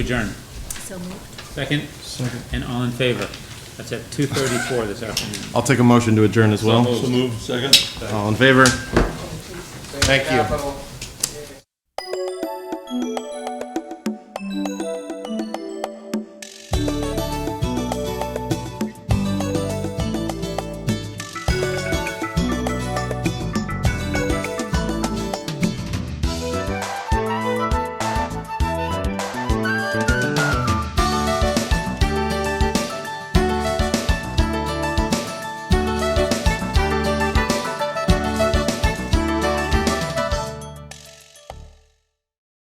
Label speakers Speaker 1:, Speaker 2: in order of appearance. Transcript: Speaker 1: Adjourn.
Speaker 2: So moved.
Speaker 1: Second? Second. And all in favor? That's at 2:34 this afternoon.
Speaker 3: I'll take a motion to adjourn as well.
Speaker 1: moved.
Speaker 4: So moved, second?
Speaker 3: All in favor? Thank you.
Speaker 5: capital